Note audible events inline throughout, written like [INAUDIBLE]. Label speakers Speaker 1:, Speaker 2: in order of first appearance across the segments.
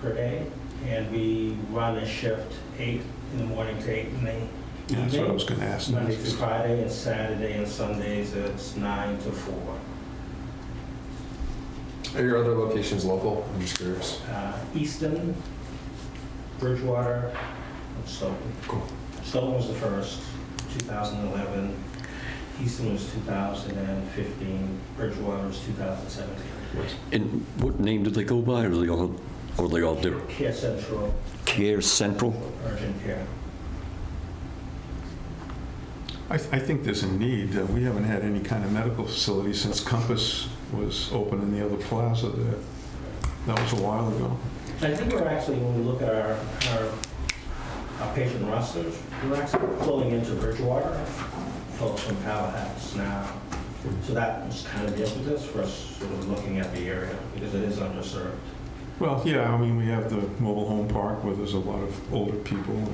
Speaker 1: per day, and we run a shift eight in the morning to eight in the
Speaker 2: Yeah, that's what I was gonna ask.
Speaker 1: Monday through Friday and Saturday and Sundays, it's nine to four.
Speaker 3: Are your other locations local? I'm just curious.
Speaker 1: Uh, Easton, Bridgewater, and Stoughton.
Speaker 3: Cool.
Speaker 1: Stoughton was the first, 2011. Easton was 2015. Bridgewater was 2017.
Speaker 4: And what name did they go by, or they all, or they all different?
Speaker 1: Care Central,
Speaker 4: Care Central?
Speaker 1: urgent care.
Speaker 2: I, I think there's a need. Uh, We haven't had any kind of medical facility since Compass was open in the other plaza there. That was a while ago.
Speaker 1: I think we're actually, when we look at our, our- our patient rosters, we're actually pulling into Bridgewater, folks from Halifax now. So that was kind of the impetus for us sort of looking at the area, because it is underserved.
Speaker 2: Well, yeah, I mean, we have the mobile home park where there's a lot of older people. and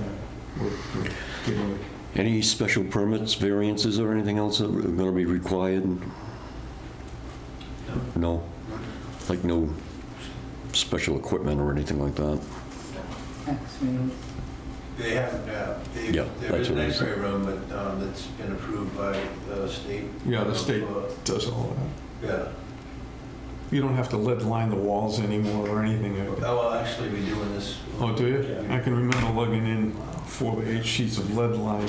Speaker 2: we're- we're getting-
Speaker 4: Any special permits, variances, or anything else that are going to be required? No? Like no special equipment or anything like that?
Speaker 5: They haven't, uh, they,
Speaker 4: Yeah,
Speaker 5: there
Speaker 4: that's
Speaker 5: is an
Speaker 4: what I'm
Speaker 5: X-ray room, but um, that's been approved by the state.
Speaker 2: Yeah, the state
Speaker 5: Uh,
Speaker 2: does all that.
Speaker 5: Yeah,
Speaker 2: You don't have to lead line the walls anymore or anything.
Speaker 5: oh, well, actually, we do in this.
Speaker 2: Oh, do you? I can remember lugging in four by eight sheets of lead line.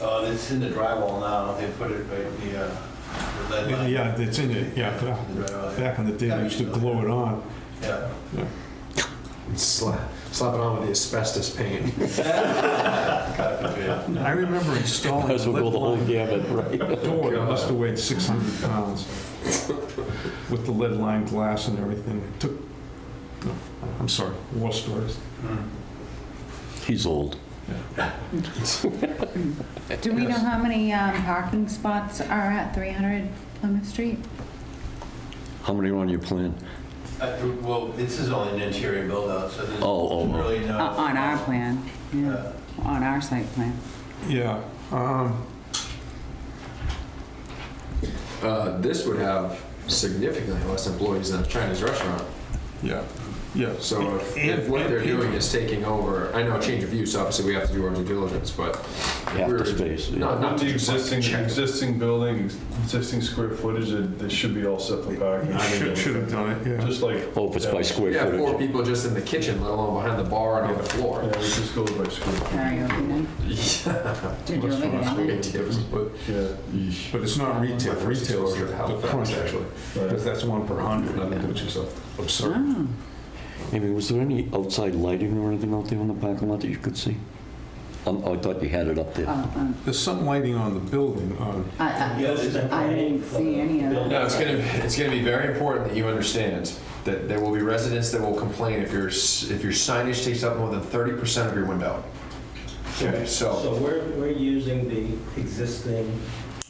Speaker 5: Uh, it's in the drywall now, they put it right, the, uh, the lead line.
Speaker 2: Yeah, it's in it, yeah. yeah.
Speaker 5: The drywall, yeah.
Speaker 2: Back in the day, they used to glue it on.
Speaker 5: Yeah.
Speaker 3: Slap, slap it on with the asbestos paint.
Speaker 5: God forbid.
Speaker 2: I remember installing.
Speaker 4: Might as well go the whole gamut, right?
Speaker 3: Oh,
Speaker 2: door that must have weighed 600 pounds with the lead lined glass and everything. It took, no, I'm sorry, war stories.
Speaker 4: [LAUGHS] He's old.
Speaker 6: Do we know how many um, parking spots are at 300 Plymouth Street?
Speaker 4: How many are on your plan?
Speaker 5: Uh, Well, this is only an interior build-out, so there's
Speaker 4: Oh, oh, oh.
Speaker 5: really no.
Speaker 6: O- Uh, On our plan, yeah,
Speaker 5: Yeah.
Speaker 6: on our site plan.
Speaker 2: Yeah, um,
Speaker 3: Uh, this would have significantly less employees than a Chinese restaurant.
Speaker 2: yeah, yeah.
Speaker 3: So if,
Speaker 2: And-
Speaker 3: if what they're
Speaker 2: and-
Speaker 3: doing is taking over, I know change of use, obviously we have to do our due diligence, but.
Speaker 4: Half the
Speaker 3: we're-
Speaker 4: space, yeah.
Speaker 3: Not, not
Speaker 7: Not
Speaker 3: to
Speaker 7: the
Speaker 3: just
Speaker 7: existing,
Speaker 3: check.
Speaker 7: existing building, existing square footage, it it should be all set for parking.
Speaker 2: You should, should have done it, yeah.
Speaker 7: Just like.
Speaker 4: Oh, if it's by square
Speaker 3: Yeah, four
Speaker 4: footage.
Speaker 3: people just in the kitchen, let alone behind the bar and on the floor.
Speaker 7: Yeah, it just goes by square.
Speaker 6: Karaoke night?
Speaker 3: [LAUGHS]
Speaker 6: Did you ever
Speaker 2: Restaurants,
Speaker 6: get
Speaker 3: Great
Speaker 6: it?
Speaker 3: tips, but-
Speaker 7: Yeah.
Speaker 2: But it's not retail,
Speaker 3: My first
Speaker 2: retail's
Speaker 3: exposure to
Speaker 2: the
Speaker 3: Halifax,
Speaker 2: crunch,
Speaker 3: actually.
Speaker 2: because that's one per hundred.
Speaker 3: Nothing to do with yourself.
Speaker 6: Oh,
Speaker 2: Absurd.
Speaker 6: um,
Speaker 4: Amy, was there any outside lighting or anything out there on the parking lot that you could see? Um, I thought you had it up there.
Speaker 6: Oh, um,
Speaker 2: There's some lighting on the building, um, on,
Speaker 6: I- I-
Speaker 1: Yeah, there's a
Speaker 6: I didn't see any of that.
Speaker 3: No, it's gonna, it's gonna be very important that you understand that there will be residents that will complain if your, s- if your signage takes up more than thirty percent of your window. Okay, so,
Speaker 1: So we're, we're using the existing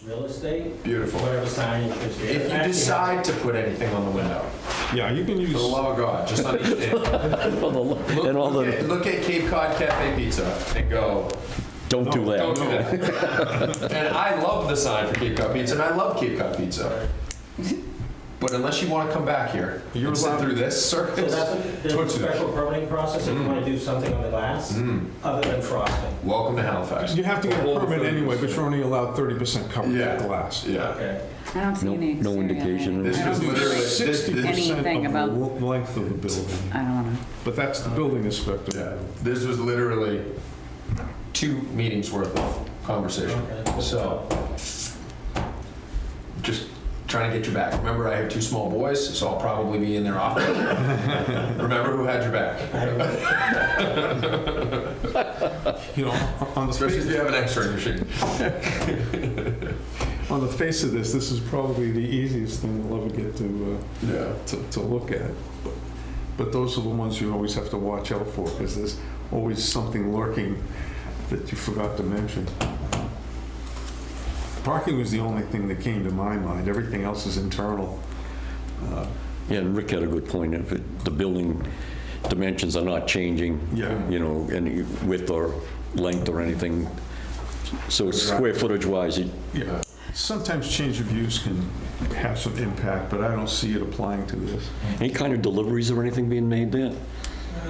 Speaker 1: real estate,
Speaker 3: beautiful.
Speaker 1: whatever signage is there.
Speaker 3: If you
Speaker 1: Actually,
Speaker 3: decide to put anything on the window,
Speaker 2: yeah, you can
Speaker 3: for the
Speaker 2: use,
Speaker 3: love of God, just understand. Look-
Speaker 4: And [LAUGHS] all
Speaker 3: Look at-
Speaker 4: the,
Speaker 3: look at Cape Cod Cafe Pizza and go,
Speaker 4: don't do
Speaker 3: don't
Speaker 4: that.
Speaker 3: do that.
Speaker 4: [LAUGHS]
Speaker 3: And I love the sign for Cape Cod Pizza, and I love Cape Cod Pizza. But unless you wanna come back here
Speaker 2: You're
Speaker 3: and sit
Speaker 2: allowed-
Speaker 3: through this
Speaker 1: So
Speaker 3: circus,
Speaker 1: that's, a- there's
Speaker 3: don't
Speaker 1: a
Speaker 3: do that.
Speaker 1: special permitting process if you
Speaker 3: Mm.
Speaker 1: want to do something on the glass, other than frosting.
Speaker 3: Welcome to Halifax.
Speaker 2: you have to get a
Speaker 7: Over
Speaker 2: permit anyway, but
Speaker 7: 30%.
Speaker 2: you're only allowed thirty percent coverage
Speaker 3: Yeah.
Speaker 2: of glass.
Speaker 3: Yeah.
Speaker 1: Okay.
Speaker 6: I don't see
Speaker 4: No-
Speaker 6: any
Speaker 4: no
Speaker 6: exterior
Speaker 4: indication.
Speaker 6: lighting.
Speaker 3: This
Speaker 6: I don't
Speaker 3: was
Speaker 6: see-
Speaker 3: literally- this-
Speaker 2: Sixty percent
Speaker 6: Anything
Speaker 2: of the
Speaker 6: about-
Speaker 2: lo- length of the building.
Speaker 6: I don't know.
Speaker 2: But that's the building
Speaker 3: Yeah,
Speaker 2: inspector.
Speaker 3: this was literally two meetings worth of conversation.
Speaker 1: Okay.
Speaker 3: So, just trying to get your back. Remember, I have two small boys, so I'll probably be in there often. Remember who had your back,
Speaker 2: You know, on the
Speaker 3: especially if
Speaker 2: face,
Speaker 3: you have an X-ray machine.
Speaker 2: on the face of this, this is probably the easiest thing we'll ever get to,
Speaker 3: Yeah.
Speaker 2: uh, to, to look at. But- But those are the ones you always have to watch out for, because there's always something lurking that you forgot to mention. Parking was the only thing that came to my mind. Everything else is internal.
Speaker 4: Yeah, and Rick had a good point. If it- the building dimensions are not changing,
Speaker 2: Yeah.
Speaker 4: you know, any width or length or anything, so it's square footage wise, it-
Speaker 2: Yeah. Sometimes change of use can have some impact, but I don't see it applying to this.
Speaker 4: any kind of deliveries or anything being made there?